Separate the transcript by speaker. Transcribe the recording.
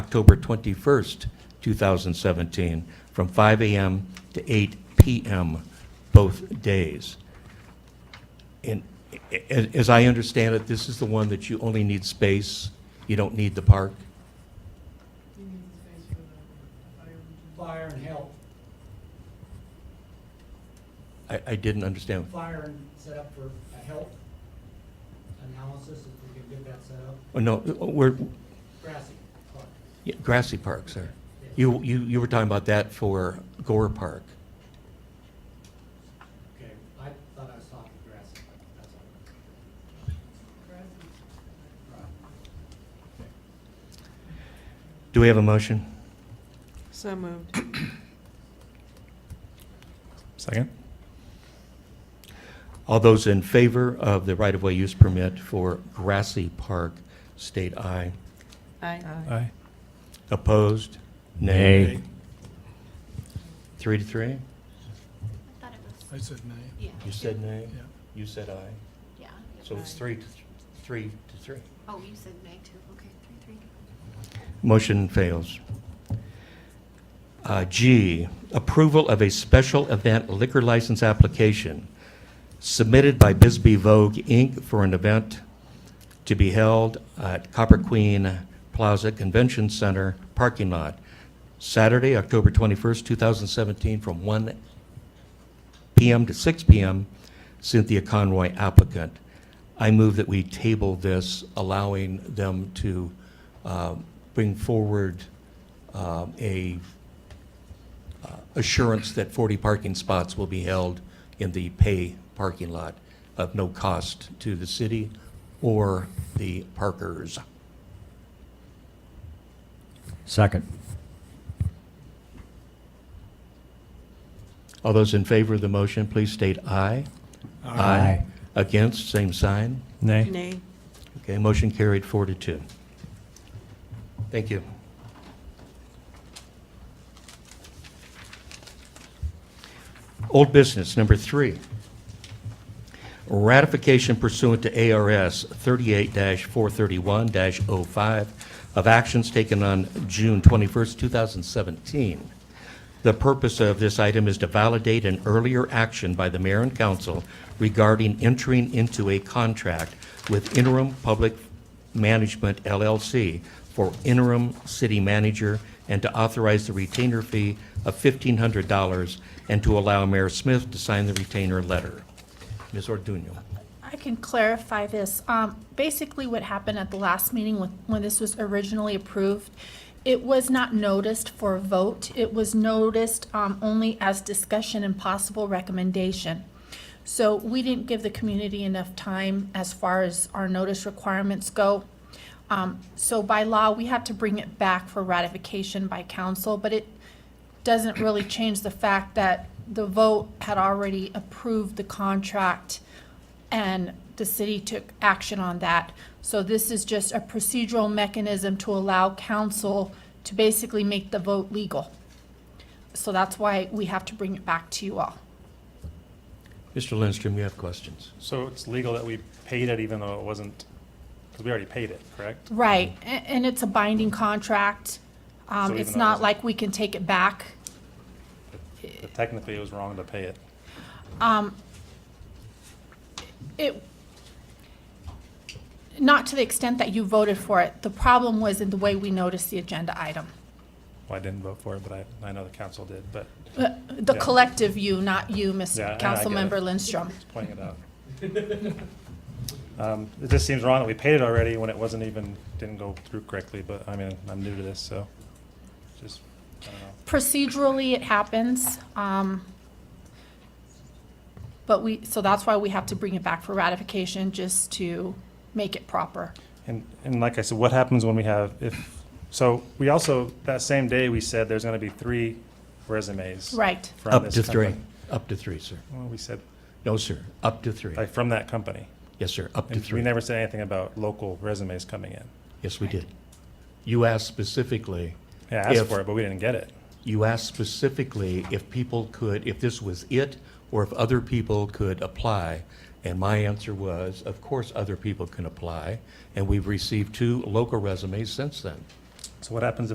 Speaker 1: October 21st, 2017, from 5 a.m. to 8 p.m. both days. And a- a- as I understand it, this is the one that you only need space, you don't need the park?
Speaker 2: Fire and help,
Speaker 1: I, I didn't understand.
Speaker 2: fire and set up for a help analysis, if we can get that set up,
Speaker 1: Oh, no, we're,
Speaker 2: grassy park.
Speaker 1: yeah, Grassy Park, sir.
Speaker 2: Yes.
Speaker 1: You, you, you were talking about that for Gore Park.
Speaker 2: Okay, I thought I was talking grassy, park. that's all. Right.
Speaker 1: Do we have a motion?
Speaker 3: So moved.
Speaker 4: Second?
Speaker 1: All those in favor of the right-of-way use permit for Grassy Park, state aye.
Speaker 3: Aye.
Speaker 4: Aye.
Speaker 1: Opposed? Nay. Three to three?
Speaker 5: I thought it was,
Speaker 6: I said nay.
Speaker 5: yeah,
Speaker 1: You said nay?
Speaker 6: Yeah.
Speaker 1: You said aye?
Speaker 5: yeah.
Speaker 1: So it's three to, three to three.
Speaker 5: Oh, you said May too, okay, three, three.
Speaker 1: Motion fails. Uh, G, approval of a special event liquor license application submitted by Bisbee Vogue, Inc. for an event to be held at Copper Queen Plaza Convention Center parking lot, Saturday, October 21st, 2017, from 1 PM to 6 PM. Cynthia Conroy applicant. I move that we table this, allowing them to uh, bring forward um, a uh, assurance that 40 parking spots will be held in the pay parking lot of no cost to the city or the parkers.
Speaker 7: Second.
Speaker 1: All those in favor of the motion, please state aye.
Speaker 7: Aye.
Speaker 1: Against, same sign.
Speaker 4: Nay?
Speaker 3: Nay.
Speaker 1: Okay, motion carried four to two. Thank you. Old business, number three. Ratification pursuant to ARS 38-431-05 of actions taken on June 21st, 2017. The purpose of this item is to validate an earlier action by the mayor and council regarding entering into a contract with Interim Public Management LLC for interim city manager and to authorize the retainer fee of $1,500 and to allow Mayor Smith to sign the retainer letter. Ms. Orduno.
Speaker 8: I can clarify this. Um, Basically, what happened at the last meeting with- when this was originally approved, it was not noticed for a vote. It was noticed um, only as discussion and possible recommendation. So we didn't give the community enough time as far as our notice requirements go. Um, So by law, we have to bring it back for ratification by council, but it doesn't really change the fact that the vote had already approved the contract and the city took action on that. So this is just a procedural mechanism to allow council to basically make the vote legal. So that's why we have to bring it back to you all.
Speaker 1: Mr. Lindstrom, you have questions?
Speaker 4: So it's legal that we paid it even though it wasn't, because we already paid it, correct?
Speaker 8: Right, a- and it's a binding contract. Um,
Speaker 4: So
Speaker 8: it's
Speaker 4: even though it
Speaker 8: not
Speaker 4: wasn't-
Speaker 8: like we can take it back.
Speaker 4: But technically, it was wrong to pay it.
Speaker 8: Um, it, not to the extent that you voted for it. The problem was in the way we noticed the agenda item.
Speaker 4: Well, I didn't vote for it, but I, I know the council did, but
Speaker 8: Uh, The
Speaker 4: Yeah.
Speaker 8: collective you, not you, Ms.
Speaker 4: Yeah, I- I get
Speaker 8: Councilmember
Speaker 4: it.
Speaker 8: Lindstrom.
Speaker 4: just pointing it out. Um, It just seems wrong that we paid it already when it wasn't even, didn't go through correctly, but I mean, I'm new to this, so just, I don't know.
Speaker 8: Procedurally, it happens. um, But we, so that's why we have to bring it back for ratification, just to make it proper.
Speaker 4: And, and like I said, what happens when we have, if, so we also, that same day, we said there's going to be three resumes.
Speaker 8: Right.
Speaker 4: from
Speaker 1: Up
Speaker 4: this
Speaker 1: to three.
Speaker 4: company.
Speaker 1: Up to three, sir.
Speaker 4: Well, we said,
Speaker 1: No, sir. Up to three.
Speaker 4: like, from that company.
Speaker 1: Yes, sir. Up to
Speaker 4: And
Speaker 1: three.
Speaker 4: we never said anything about local resumes coming in.
Speaker 1: Yes, we did. You asked specifically.
Speaker 4: Yeah, I asked
Speaker 1: if-
Speaker 4: for it, but we didn't get it.
Speaker 1: You asked specifically if people could, if this was it, or if other people could apply. And my answer was, of course, other people can apply. And we've received two local resumes since then.
Speaker 4: So what happens